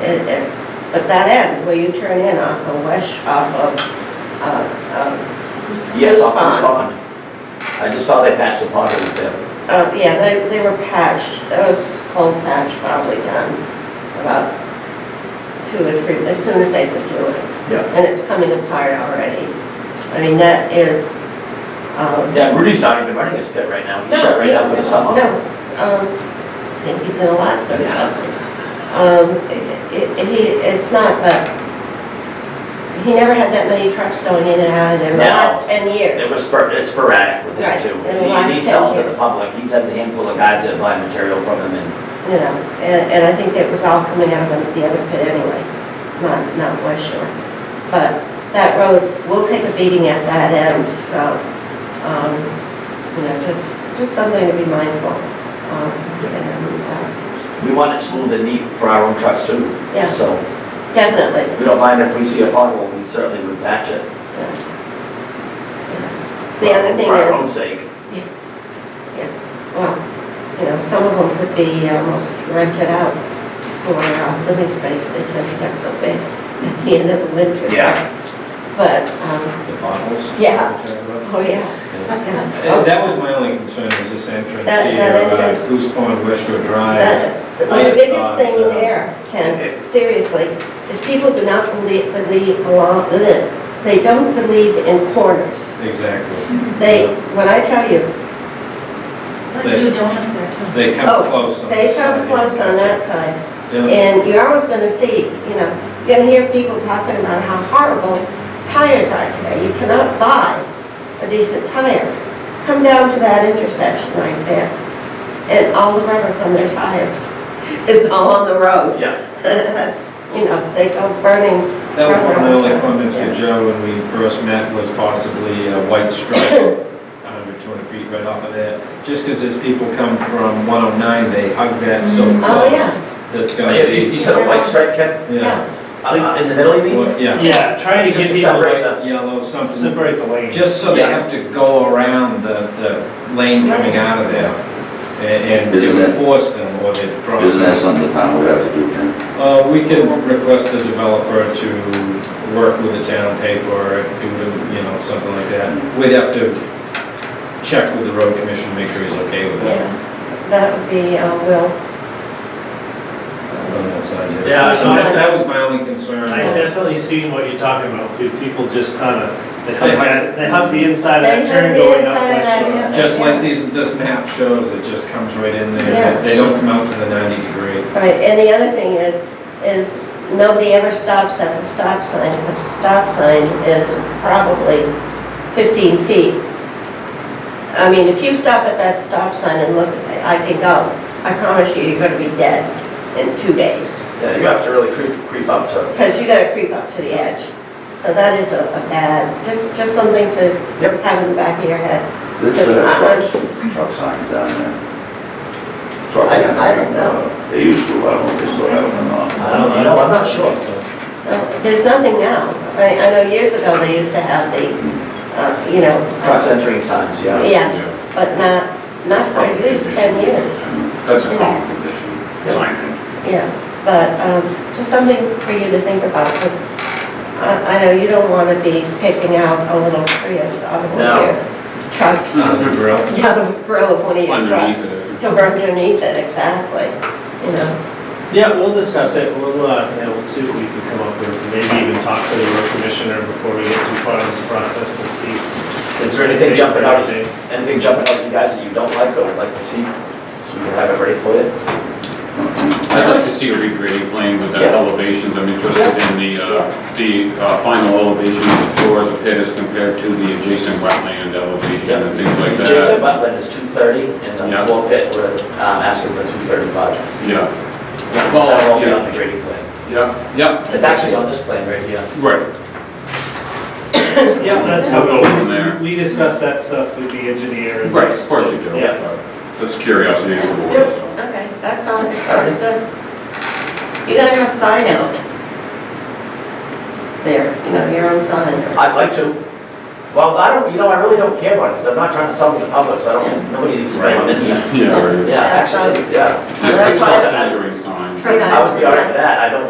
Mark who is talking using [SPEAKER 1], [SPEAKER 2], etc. [SPEAKER 1] It, it, but that end where you turn in off of West, off of, uh,
[SPEAKER 2] Yes,
[SPEAKER 1] Who's
[SPEAKER 2] off the pond. I just saw they patched the pond and said,
[SPEAKER 1] um, uh, yeah, they, they were patched, that was cold patch probably done about two or three, as soon as they could do it.
[SPEAKER 2] yeah.
[SPEAKER 1] And it's coming apart already. I mean, that is, um.
[SPEAKER 2] Yeah, Rudy's not even running his pit right now, he's
[SPEAKER 1] No,
[SPEAKER 2] shut right
[SPEAKER 1] no,
[SPEAKER 2] now for the summer.
[SPEAKER 1] No, um, I think he's in Alaska or
[SPEAKER 2] Yeah.
[SPEAKER 1] something. Um, it- it, he, it's not, but he never had that many trucks going in and out of there in the
[SPEAKER 2] No.
[SPEAKER 1] last ten
[SPEAKER 2] It
[SPEAKER 1] years.
[SPEAKER 2] was spor- it's sporadic with him
[SPEAKER 1] Right,
[SPEAKER 2] too.
[SPEAKER 1] in the last
[SPEAKER 2] He- He's
[SPEAKER 1] 10
[SPEAKER 2] selling to the
[SPEAKER 1] years.
[SPEAKER 2] public, he has a handful of guys that buy material from him and,
[SPEAKER 1] You know, and, and I think that was all coming out of the other pit anyway, not, not West Shore. But that road will take a beating at that end, so, um, you know, just, just something to be mindful of. And, uh,
[SPEAKER 2] we want it smooth and neat for our own trucks too.
[SPEAKER 1] Yeah.
[SPEAKER 2] So
[SPEAKER 1] Definitely,
[SPEAKER 2] we don't mind if we see a pothole, we certainly would patch it. for
[SPEAKER 1] The
[SPEAKER 2] our
[SPEAKER 1] other
[SPEAKER 2] own-
[SPEAKER 1] thing
[SPEAKER 2] For our
[SPEAKER 1] is-
[SPEAKER 2] own sake.
[SPEAKER 1] Well, you know, some of them could be uh, almost rented out for uh, living space, they tend to get so big at the end of the winter.
[SPEAKER 2] Yeah.
[SPEAKER 1] But, um,
[SPEAKER 3] The potholes?
[SPEAKER 1] Yeah.
[SPEAKER 3] You're talking about?
[SPEAKER 1] oh yeah,
[SPEAKER 3] Yeah.
[SPEAKER 1] yeah.
[SPEAKER 3] That that was my only concern, was this entrance
[SPEAKER 1] That-
[SPEAKER 3] here,
[SPEAKER 1] that
[SPEAKER 3] uh,
[SPEAKER 1] entrance.
[SPEAKER 3] Goose Pond, West Shore Drive.
[SPEAKER 1] That- Oh, The
[SPEAKER 3] uh, I-
[SPEAKER 1] biggest thing in
[SPEAKER 3] uh,
[SPEAKER 1] there, Ken, seriously, is people do not believe, believe along, they don't believe in corners.
[SPEAKER 3] Exactly.
[SPEAKER 1] They, when I tell you,
[SPEAKER 4] Let's do donuts there too.
[SPEAKER 3] They
[SPEAKER 1] Oh,
[SPEAKER 3] come close on
[SPEAKER 1] they
[SPEAKER 3] this side.
[SPEAKER 1] come close on that side.
[SPEAKER 3] Yeah.
[SPEAKER 1] And you're always gonna see, you know, you're gonna hear people talking about how horrible tires are today. You cannot buy a decent tire. Come down to that intersection right there, and all the rubber from their tires is all on the road.
[SPEAKER 2] Yeah.
[SPEAKER 1] That's, you know, they go burning,
[SPEAKER 3] That was one of my only
[SPEAKER 1] Yeah.
[SPEAKER 3] comments with Joe when we first met, was possibly a white stripe, 100, 200 feet right off of there. Just because as people come from 109, they hug that so close.
[SPEAKER 1] oh, yeah,
[SPEAKER 3] That's
[SPEAKER 2] You
[SPEAKER 3] gonna
[SPEAKER 2] you
[SPEAKER 3] be,
[SPEAKER 2] said a white stripe, Ken?
[SPEAKER 3] yeah.
[SPEAKER 1] yeah,
[SPEAKER 2] Uh, In the middle, you mean?
[SPEAKER 3] Well, Yeah.
[SPEAKER 5] Yeah, trying to
[SPEAKER 2] It's
[SPEAKER 5] get
[SPEAKER 2] just
[SPEAKER 5] people
[SPEAKER 2] separate
[SPEAKER 5] to
[SPEAKER 2] the,
[SPEAKER 3] Yellow, something
[SPEAKER 5] separate the lanes.
[SPEAKER 3] Just so they
[SPEAKER 2] Yeah.
[SPEAKER 3] have to go around the, the lane coming out of there, and and it
[SPEAKER 6] Isn't
[SPEAKER 3] would
[SPEAKER 6] that-
[SPEAKER 3] force them, or they'd cross.
[SPEAKER 6] Isn't that something the town would have to do, Ken?
[SPEAKER 3] Uh, we can request the developer to work with the town, pay for it, do, the- you know, something like that. We'd have to check with the road commission, make sure he's okay with it
[SPEAKER 1] yeah. That would be, uh, Will.
[SPEAKER 3] on that side.
[SPEAKER 5] Yeah,
[SPEAKER 3] So
[SPEAKER 5] no,
[SPEAKER 3] that,
[SPEAKER 5] I-
[SPEAKER 3] that was my only concern.
[SPEAKER 5] I
[SPEAKER 3] was-
[SPEAKER 5] definitely seen what you're talking about, dude. people just kinda, they hug
[SPEAKER 3] They hug-
[SPEAKER 5] that, they hug the inside of
[SPEAKER 1] They
[SPEAKER 5] that turn
[SPEAKER 1] hug the
[SPEAKER 5] going up.
[SPEAKER 1] inside of
[SPEAKER 5] West
[SPEAKER 1] that,
[SPEAKER 5] Shore.
[SPEAKER 1] yeah.
[SPEAKER 3] Just like these, this map shows, it just comes right in
[SPEAKER 1] Yeah.
[SPEAKER 3] there, they don't come out to the ninety degree.
[SPEAKER 1] Right, and the other thing is, is nobody ever stops at the stop sign, because the stop sign is probably 15 feet. I mean, if you stop at that stop sign and look and say, I can go, I promise you, you're gonna be dead in two days,
[SPEAKER 2] Yeah, you have to really creep, creep up to.
[SPEAKER 1] because you gotta creep up to the edge. So that is a a bad, just, just something to
[SPEAKER 2] Yep.
[SPEAKER 1] have in the back of your head. uh,
[SPEAKER 6] They should have trucks, truck signs down there. Truck
[SPEAKER 1] I-
[SPEAKER 6] signs.
[SPEAKER 1] I don't know.
[SPEAKER 6] They used to, I don't know if they still have them or not.
[SPEAKER 2] I don't know, I'm not sure.
[SPEAKER 1] Uh, There's nothing now. I, I know years ago, they used to have the, uh, you know. uh,
[SPEAKER 2] Trucks entering signs, yeah.
[SPEAKER 1] Yeah, but not, not for at least 10 years,
[SPEAKER 6] Mm-hmm.
[SPEAKER 7] That's a common condition. Signage.
[SPEAKER 1] yeah. But um, just something for you to think about, because I I know you don't want to be picking out a little Prius out of one of
[SPEAKER 2] No.
[SPEAKER 1] your trucks,
[SPEAKER 3] Another grill.
[SPEAKER 1] out of the grill of one of your
[SPEAKER 7] Underneath
[SPEAKER 1] trucks.
[SPEAKER 7] it.
[SPEAKER 1] Or underneath it, exactly, you know.
[SPEAKER 5] Yeah, we'll discuss it, we'll, uh, yeah, we'll see what we can come up with, maybe even talk to the road commissioner before we get too far in this process to see.
[SPEAKER 2] Is there anything jumping out,
[SPEAKER 5] Anything.
[SPEAKER 2] anything jumping out at you guys that you don't like or would like to see? So we can have it ready for you?
[SPEAKER 7] I'd like to see a regrading plan with the
[SPEAKER 2] Yeah.
[SPEAKER 7] elevations, I'm interested in the, uh, the uh, final elevation for the pit as compared to the adjacent wetland elevation and things like
[SPEAKER 2] Jason
[SPEAKER 7] that.
[SPEAKER 2] Butland is two thirty and the
[SPEAKER 7] Yeah.
[SPEAKER 2] floor pit, we're um, asking for two thirty-five.
[SPEAKER 7] Yeah,
[SPEAKER 2] That
[SPEAKER 7] Well,
[SPEAKER 2] will be
[SPEAKER 7] yeah.
[SPEAKER 2] on the grading plan.
[SPEAKER 7] yeah, yeah.
[SPEAKER 2] It's actually on this plan right here.
[SPEAKER 7] Right,
[SPEAKER 5] Yeah, that's how
[SPEAKER 7] We'll go from there.
[SPEAKER 5] we, we discuss that stuff with the engineer. and-
[SPEAKER 7] right, of course you do.
[SPEAKER 5] Yeah.
[SPEAKER 7] Just curiosity. of the board, so.
[SPEAKER 1] Okay, that's all, sounds good. You gotta have a sign out there, you know, your own sign. or-
[SPEAKER 2] I'd like to, well, I don't, you know, I really don't care about it because I'm not trying to sell it to the public, so I don't, nobody needs to know I'm in here.
[SPEAKER 7] Yeah, right.
[SPEAKER 2] Yeah, actually, yeah.
[SPEAKER 7] Just the
[SPEAKER 1] That's
[SPEAKER 7] truck
[SPEAKER 1] fine.
[SPEAKER 7] centering sign.
[SPEAKER 1] Try that.
[SPEAKER 2] I would be all right with that, I don't want